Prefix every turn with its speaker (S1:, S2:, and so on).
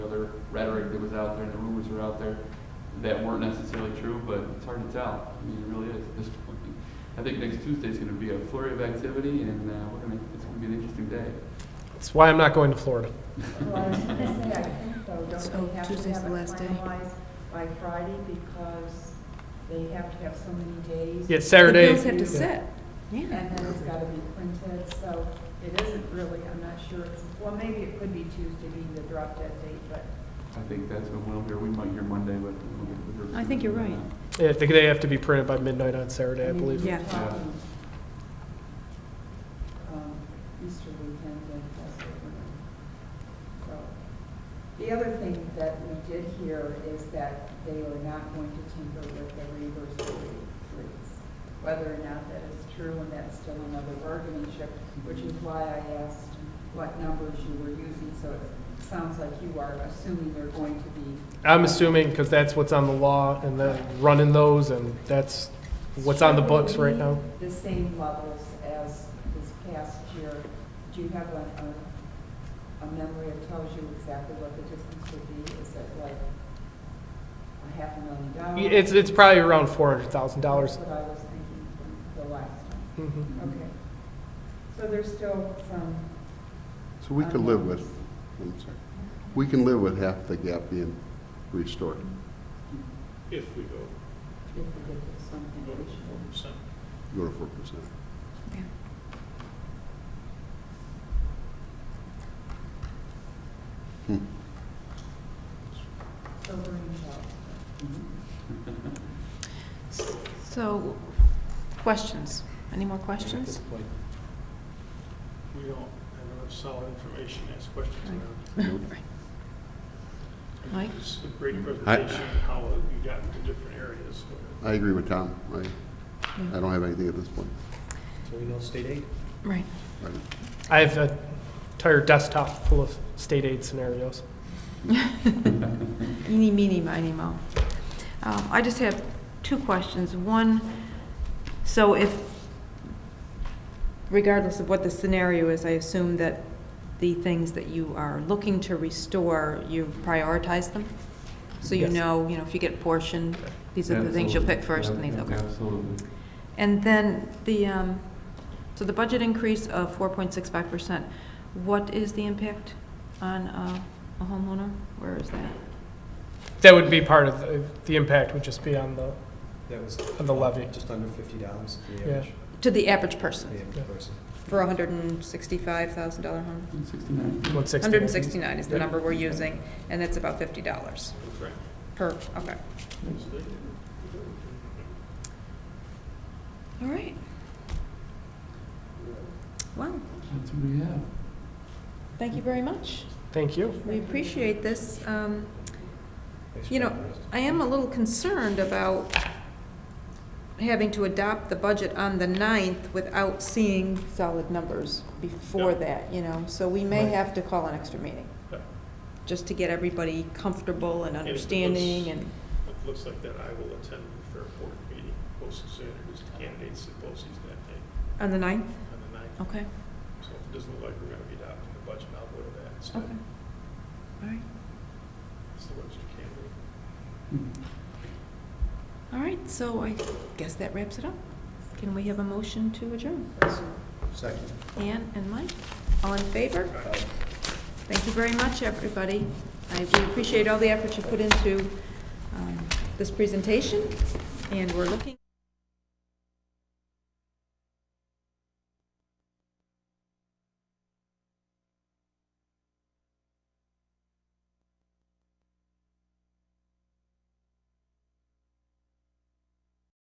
S1: rhetoric that was out there and the rumors were out there that weren't necessarily true, but it's hard to tell. I mean, it really is at this point. I think next Tuesday's going to be a flurry of activity, and uh, we're going to, it's going to be an interesting day.
S2: That's why I'm not going to Florida.
S3: Well, I was gonna say, I think though,
S4: So
S3: don't they have to
S4: Tuesday's
S3: have
S4: the
S3: it
S4: last day.
S3: finalized by Friday because they have to have so many days?
S2: Yeah, it's Saturday.
S4: The bills have to sit,
S3: And
S4: yeah.
S3: then it's gotta be printed, so it isn't really, I'm not sure, it's, well, maybe it could be Tuesday being the drop dead date, but
S1: I think that's when we'll hear, we might hear Monday, but we'll get the first.
S4: I think you're right.
S2: Yeah, I think they have to be printed by midnight on Saturday, I
S3: mean,
S2: believe.
S3: you're
S4: Mm, Yeah.
S3: talking, um, Easter weekend and Passover. So, The other thing that we did hear is that they are not going to tinker with the reverse rates. Whether or not that is true, and that's still another bargaining chip, which is why I asked what numbers you were using, so it sounds like you are assuming they're going to be
S2: I'm assuming, because that's what's on the law, and then running those, and that's what's on the books right now.
S3: The same levels as this past year. Do you have a, a, a memory that tells you exactly what the difference would be? Is it like a half a million dollars?
S2: It's, it's probably around four hundred thousand dollars.
S3: That's what I was thinking from the last time.
S2: Mhm.
S3: Okay. So there's still some.
S5: So we could live with, I'm sorry, we can live with half the gap being restored.
S6: If we go
S3: If we get to something
S6: go to four
S3: additional.
S6: percent.
S5: Go to four percent.
S3: So we're in trouble.
S4: So, questions? Any more questions?
S6: We don't have enough solid information to ask questions
S4: Right.
S6: about.
S4: Mike?
S6: It's a great
S5: I-
S6: presentation, how you got into different areas.
S5: I agree with Tom. I, I don't have anything at this point.
S7: So we know state aid?
S4: Right.
S5: Right.
S2: I have an entire desktop full of state aid scenarios.
S4: Eeny, meeny, miny, mo. Um, I just have two questions. One, so if, regardless of what the scenario is, I assume that the things that you are looking to restore, you've prioritized them? So you
S2: Yes.
S4: know, you know, if you get a portion, these are the things you'll pick first, and these, okay.
S1: Absolutely.
S4: And then the, um, so the budget increase of 4.65%, what is the impact on uh, a homeowner? Where is that?
S2: That would be part of, the- the impact would just be on the,
S7: That was
S2: on the levy.
S7: just under fifty dollars for the
S2: Yeah.
S7: average,
S4: To the average
S7: for
S4: person,
S7: the
S2: Yeah.
S7: average person.
S4: for a hundred and sixty-five thousand dollar home?
S1: 69.
S2: One sixty.
S4: Hundred and sixty-nine is the number we're using, and that's about fifty dollars
S6: Right.
S4: per, okay. All right. Well,
S1: That's what we have.
S4: thank you very much.
S2: Thank you.
S4: We appreciate this. Um,
S7: Thanks for
S4: You know,
S7: the rest.
S4: I am a little concerned about having to adopt the budget on the 9th without seeing solid numbers before
S6: Yeah.
S4: that, you know? So we may
S2: Right.
S4: have to call an extra meeting,
S6: Yeah.
S4: just to get everybody comfortable and
S6: And it looks-
S4: understanding and,
S6: It looks like that I will attend the Fairport meeting, posted Sanders candidates and posties that day
S4: on the 9th?
S6: on the ninth.
S4: Okay,
S6: So if it doesn't look like we're gonna be adopting the budget, I'll go to that
S4: okay.
S6: instead.
S4: All right,
S6: It's the Webster candidate.
S4: all right, so I guess that wraps it up. Can we have a motion to adjourn?
S7: Second.
S4: Ann and Mike, all in favor? Thank you very much, everybody. I we appreciate all the effort you put into um, this presentation, and we're looking...